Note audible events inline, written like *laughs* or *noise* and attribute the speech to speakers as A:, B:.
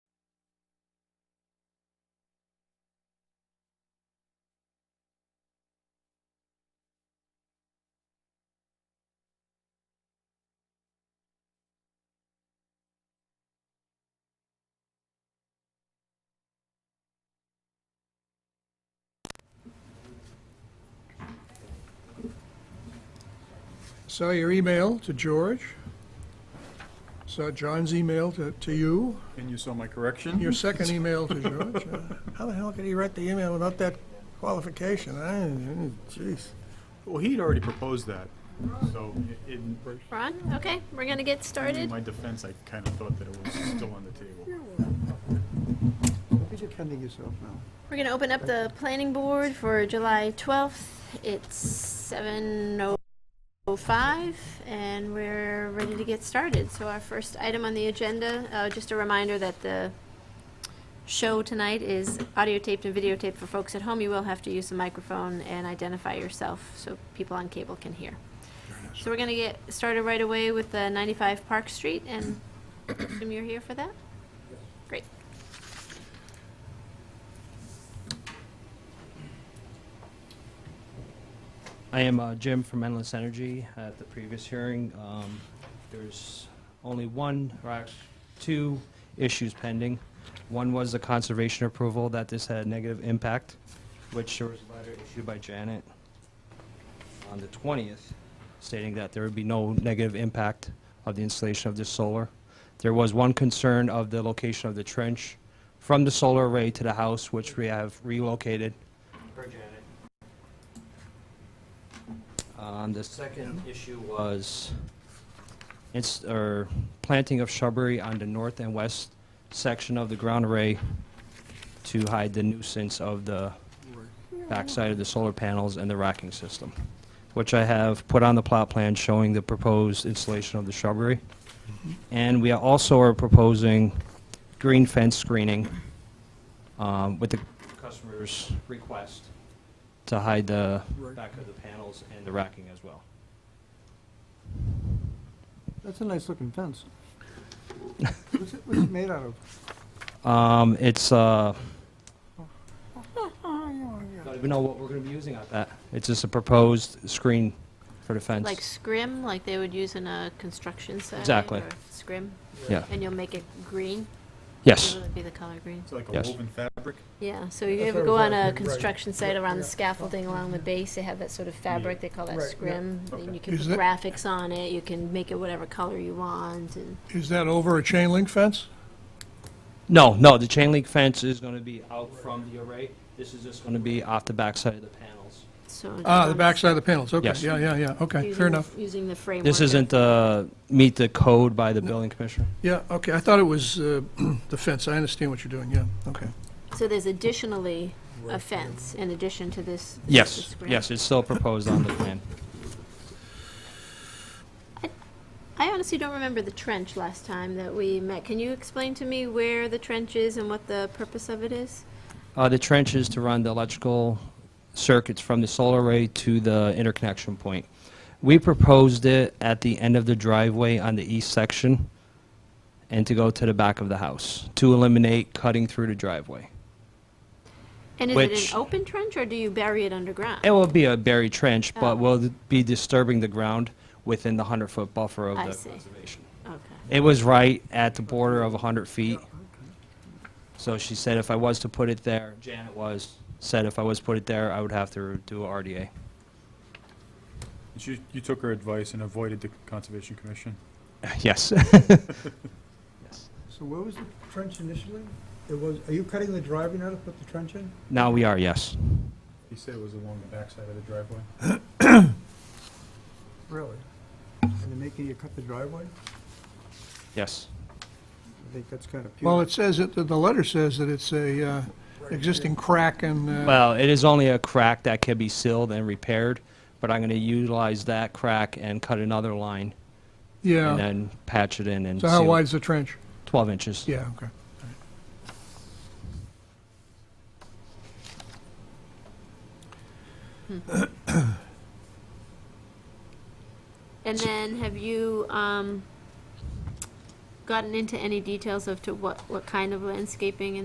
A: saw your email to George, saw John's email to, to you,
B: And you saw my correction?
A: your second email to George. Uh, How the hell could he write the email without that qualification? I, jeez.
B: Well, he'd already proposed that, so in,
C: Ron, okay, we're gonna get
B: in
C: started.
B: my defense, I kind of thought that it was still on the table.
D: You're defending yourself now.
C: We're gonna open up the planning board for July 12th. It's 7:05, and we're ready to get started. So our first item on the agenda, uh, just a reminder that the show tonight is audio taped and videotaped for folks at home. You will have to use the microphone and identify yourself so people on cable can hear. So we're gonna get started right away with the 95 Park Street, and *coughs* assume you're here for that? Great.
E: I am uh, Jim from Endless Energy. At the previous hearing, um, there's only one, or act- two issues pending. One was the conservation approval that this had a negative impact, which there was a letter issued by Janet on the 20th stating that there would be no negative impact of the installation of this solar. There was one concern of the location of the trench from the solar array to the house, which we have relocated. Per Janet. Um, the second issue was it's, or planting of shrubbery on the north and west section of the ground array to hide the nuisance of the backside of the solar panels and the racking system, which I have put on the plot plan showing the proposed installation of the shrubbery. And we are also are proposing green fence screening um, with the customer's request to hide the
D: Right.
E: back of the panels and the racking as well.
D: That's a
E: *laughs*
D: nice-looking fence. What's it, what's it made out of?
E: Um, It's, uh,
D: Oh, yeah,
E: don't even know what we're going to be using on that. It's just a proposed screen for the fence.
C: Like scrim, like they would use in a construction site?
E: Exactly.
C: or Scrim,
E: Yeah,
C: and you'll make it green?
E: yes.
C: It'll be the color green.
B: It's like a
E: Yes.
B: woven fabric.
C: Yeah, so you
A: That's
C: ever
A: what
C: go
A: I was
C: on a
A: asking, right.
C: construction site around the
D: Yeah.
C: scaffolding along the base, they have that sort of fabric, they call that
D: Right, yeah.
C: scrim. And you can
A: Is
C: put
A: that-
C: graphics on it, you can make it whatever color you want, and
A: Is that over a chain link fence?
E: No, no, the chain link fence is going to be out from the array. This is just going to be off the backside of the panels.
C: so.
A: Ah, the
C: um,
A: backside of the panels, okay,
E: Yes.
A: yeah, yeah, yeah, okay,
C: using
A: fair
C: the-
A: enough.
C: Using the framework.
E: This
C: of-
E: isn't, uh, meet the code by the building commissioner?
A: Yeah, okay, I thought it was uh, *clears throat* the fence, I understand what you're doing, yeah, okay.
C: So there's additionally a fence in addition to this. this is
E: Yes,
C: scrim.
E: yes, it's still proposed on the plan.
C: I honestly don't remember the trench last time that we met. Can you explain to me where the trench is and what the purpose of it is?
E: Uh, the trench is to run the electrical circuits from the solar array to the interconnection point. We proposed it at the end of the driveway on the east section and to go to the back of the house to eliminate cutting through the driveway.
C: And is it
E: Which-
C: an open trench or do you bury it underground?
E: It will be a buried trench,
C: Oh.
E: but will be disturbing the ground within the 100-foot buffer of
C: I
E: the
C: see.
E: conservation.
C: Okay.
E: It was right at the border of 100 feet. So she said if I was to put it there, Janet was, said if I was to put it there, I would have to do a RDA.
B: You, you took her advice and avoided the Conservation Commission.
E: Yes.
D: So where was the trench initially? It was, are you cutting the driveway now to put the trench in?
E: Now we are, yes.
B: He said it was along the backside of the driveway.
D: Really? And they're making you cut the driveway?
E: Yes.
D: I think that's kind of
A: Well,
D: puny.
A: it says, it. the letter says that it's a uh, existing crack and, uh,
E: Well, it is only a crack that can be sealed and repaired, but I'm going to utilize that crack and cut another line and
A: yeah.
E: then patch it in and
A: So how
E: seal it.
A: wide's the trench?
E: 12 inches.
A: Yeah, okay.
C: And then have you um, gotten into any details of to what, what kind of landscaping and